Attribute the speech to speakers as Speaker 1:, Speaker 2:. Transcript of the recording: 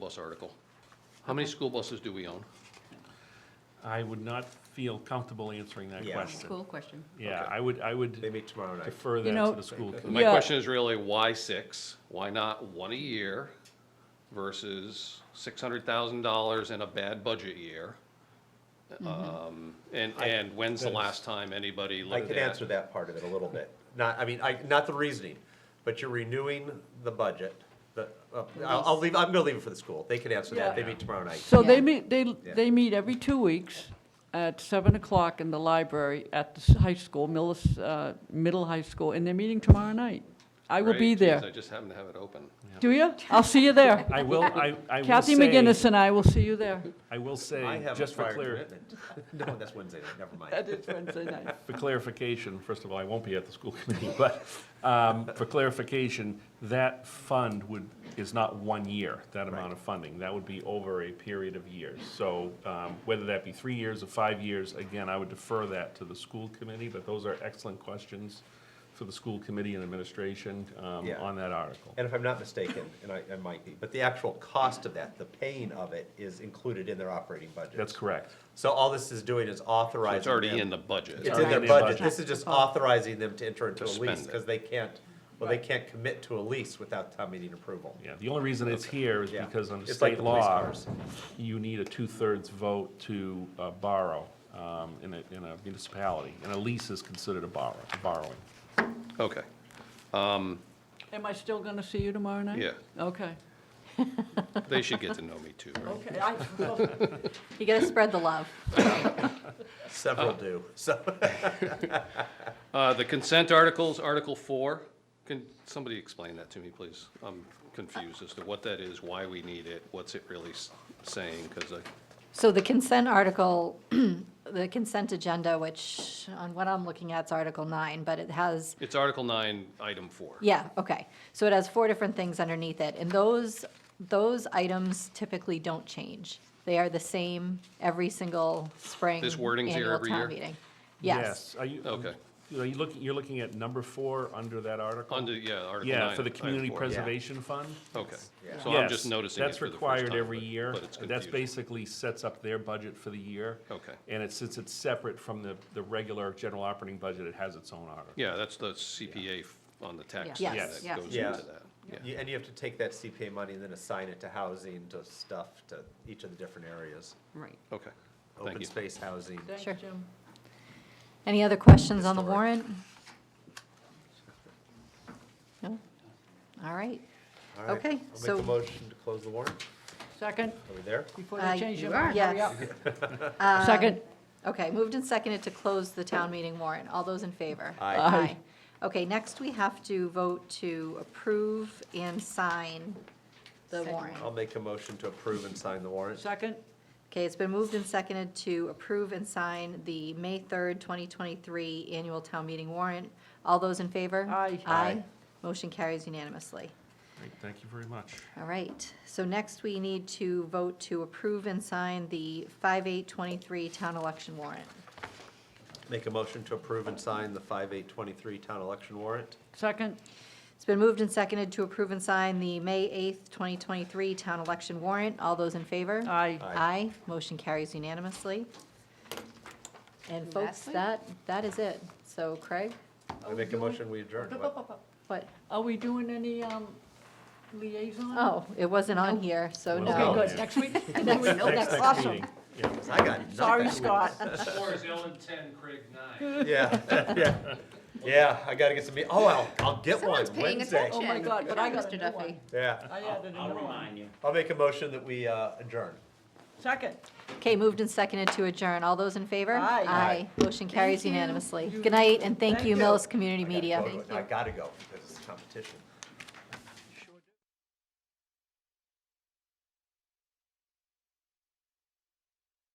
Speaker 1: bus article. How many school buses do we own?
Speaker 2: I would not feel comfortable answering that
Speaker 3: Yeah.
Speaker 2: question.
Speaker 4: School question.
Speaker 2: Yeah, I would, I would
Speaker 3: Maybe tomorrow night.
Speaker 2: defer that
Speaker 5: know-
Speaker 2: to the school. committee.
Speaker 1: My
Speaker 5: Yeah.
Speaker 1: question is really, why six? Why not one a year versus six hundred thousand dollars in a bad budget year?
Speaker 5: Mm-hmm.
Speaker 1: Um, and, and when's the
Speaker 2: that is-
Speaker 1: last time anybody
Speaker 3: I
Speaker 1: looked
Speaker 3: can
Speaker 1: at?
Speaker 3: answer that part of it a little bit. Not, I mean, I, not the reasoning, but you're renewing the budget. The, uh, I'll, I'll leave, I'm gonna leave it for the school. They can answer that. They
Speaker 5: Yeah.
Speaker 3: meet tomorrow night.
Speaker 5: So
Speaker 4: Yeah.
Speaker 5: they meet, they, they meet every two weeks at seven o'clock in the library at the s- high school, Millis, uh, middle high school, and they're meeting tomorrow night. I will
Speaker 1: Right?
Speaker 5: be
Speaker 1: Jeez, I
Speaker 5: there.
Speaker 1: just happen to have it open.
Speaker 5: Do you? I'll see you there.
Speaker 2: I will, I, I will say.
Speaker 5: Kathy McGinnis and I will see you there.
Speaker 2: I will
Speaker 3: I
Speaker 2: say,
Speaker 3: have a
Speaker 2: just for
Speaker 3: prior
Speaker 2: clar,
Speaker 3: commitment. No, that's Wednesday night, never mind.
Speaker 5: That is Wednesday night.
Speaker 2: for clarification, first of all, I won't be at the school committee, but, um, for clarification, that fund would, is not one year, that amount of funding. That would be over a period of years. So, um, whether that be three years or five years, again, I would defer that to the school committee, but those are excellent questions for the school committee and administration, um,
Speaker 3: Yeah.
Speaker 2: on that article.
Speaker 3: And if I'm not mistaken, and I, I might be, but the actual cost of that, the paying of it is included in their operating budget.
Speaker 2: That's correct.
Speaker 3: So all this is doing is authorizing.
Speaker 1: It's already
Speaker 3: them-
Speaker 1: in the budget.
Speaker 3: It's in their
Speaker 2: Already in the
Speaker 3: budget.
Speaker 2: budget.
Speaker 3: This is just authorizing them to enter into a
Speaker 1: To
Speaker 3: lease
Speaker 1: spend it.
Speaker 3: because they can't, well, they can't commit to a lease without town meeting approval.
Speaker 2: Yeah, the only reason it's here is
Speaker 3: Yeah.
Speaker 2: because under
Speaker 3: It's like
Speaker 2: state
Speaker 3: the police
Speaker 2: law,
Speaker 3: cars.
Speaker 2: you need a two-thirds vote to uh, borrow um, in a, in a municipality, and a lease is considered a borrow, borrowing.
Speaker 1: Okay,
Speaker 5: Am I still gonna see you tomorrow night?
Speaker 1: Yeah.
Speaker 5: Okay.
Speaker 1: they should get to know me too, right?
Speaker 5: Okay, I will.
Speaker 4: You gotta spread the love.
Speaker 1: Oh.
Speaker 3: Several do, so.
Speaker 1: Uh, the consent articles, Article Four, can somebody explain that to me, please? I'm confused as to what that is, why we need it, what's it really s- saying, because I,
Speaker 4: So the consent article, the consent agenda, which on what I'm looking at is Article 9, but it has,
Speaker 1: it's Article Nine, Item Four.
Speaker 4: yeah, okay. So it has four different things underneath it, and those, those items typically don't change. They are the same every single spring.
Speaker 1: This wording's here
Speaker 4: annual
Speaker 1: every
Speaker 4: town
Speaker 1: year?
Speaker 4: meeting. Yes.
Speaker 2: Are you?
Speaker 1: Okay.
Speaker 2: Are you looking, you're looking at number four under that article?
Speaker 1: Under, yeah, Article Nine.
Speaker 2: Yeah, for the
Speaker 1: Item
Speaker 2: Community
Speaker 1: Four.
Speaker 2: Preservation Fund?
Speaker 1: Okay,
Speaker 3: Yeah.
Speaker 1: so I'm just
Speaker 2: Yes,
Speaker 1: noticing it for the first
Speaker 2: That's required
Speaker 1: time,
Speaker 2: every
Speaker 1: but-
Speaker 2: year.
Speaker 1: But it's
Speaker 2: That's
Speaker 1: confusing.
Speaker 2: basically sets up their budget for the year.
Speaker 1: Okay.
Speaker 2: And it, since it's separate from the, the regular general operating budget, it has its own article.
Speaker 1: Yeah, that's the CPA f- on the tax
Speaker 4: Yeah.
Speaker 1: that
Speaker 4: Yes,
Speaker 1: goes
Speaker 4: yeah.
Speaker 1: into
Speaker 3: Yeah.
Speaker 1: that, yeah.
Speaker 3: You- And you have to take that CPA money and then assign it to housing, to stuff, to each of the different areas.
Speaker 5: Right.
Speaker 1: Okay, thank
Speaker 3: Open
Speaker 1: you.
Speaker 3: space housing.
Speaker 5: Thanks,
Speaker 4: Sure.
Speaker 5: Jim.
Speaker 4: Any other questions on the
Speaker 3: Historic.
Speaker 4: warrant? No? All right.
Speaker 3: All right,
Speaker 4: Okay,
Speaker 3: I'll
Speaker 4: so-
Speaker 3: make a motion to close the warrant.
Speaker 5: Second,
Speaker 3: Are we there?
Speaker 5: before
Speaker 4: Uh,
Speaker 5: they change
Speaker 4: you
Speaker 5: your
Speaker 4: are,
Speaker 5: mind, hurry up.
Speaker 4: yes. Uh,
Speaker 5: Second,
Speaker 4: Okay, moved and seconded to close the town meeting warrant. All those in favor?
Speaker 3: Aye.
Speaker 5: Aye.
Speaker 4: Okay, next we have to vote to approve and sign the
Speaker 5: Second.
Speaker 4: warrant.
Speaker 3: I'll make a motion to approve and sign the warrant.
Speaker 5: second,
Speaker 4: Okay, it's been moved and seconded to approve and sign the May 3rd, 2023 annual town meeting warrant. All those in favor?
Speaker 5: Aye.
Speaker 4: Aye.
Speaker 3: Aye.
Speaker 4: Motion carries unanimously.
Speaker 2: Great, Thank you very much.
Speaker 4: All right, so next we need to vote to approve and sign the 5823 town election warrant.
Speaker 3: Make a motion to approve and sign the five eight twenty-three town election warrant.
Speaker 5: second,
Speaker 4: It's been moved and seconded to approve and sign the May 8th, 2023 town election warrant. All those in favor?
Speaker 5: aye.
Speaker 3: Aye.
Speaker 4: Aye. Motion carries unanimously. And folks,
Speaker 5: Lastly?
Speaker 4: that, that is it. So Craig,
Speaker 3: I make a motion, we adjourn. What?
Speaker 4: what?
Speaker 5: Are we doing any um, liaison?
Speaker 4: Oh, it wasn't on here, so
Speaker 2: Wasn't
Speaker 4: no.
Speaker 2: on.
Speaker 5: Okay, good, next week?
Speaker 2: Next, next
Speaker 5: Awesome.
Speaker 2: meeting. Yeah.
Speaker 3: 'Cause I got nothing.
Speaker 5: Sorry, Scott.
Speaker 1: Four is Ellen ten, Craig nine.
Speaker 3: Yeah, yeah, yeah, I gotta get some, me- oh, I'll, I'll get one
Speaker 6: Someone's paying
Speaker 3: Wednesday.
Speaker 5: Oh, my God, but I got a
Speaker 6: Mr.
Speaker 5: new one.
Speaker 6: Duffy.
Speaker 3: Yeah,
Speaker 5: I added
Speaker 7: I'll
Speaker 5: another one.
Speaker 7: remind you.
Speaker 3: I'll make a motion that we uh, adjourn.
Speaker 5: Second.
Speaker 4: Okay, moved and seconded to adjourn. All those in favor?
Speaker 5: Aye.
Speaker 4: Aye. Motion carries
Speaker 5: you.
Speaker 4: unanimously.
Speaker 5: You-
Speaker 4: Good night, and thank
Speaker 5: Thank
Speaker 4: you,
Speaker 5: you.
Speaker 4: Millis Community
Speaker 3: I gotta
Speaker 4: Media.
Speaker 3: go to it. I gotta go because it's competition.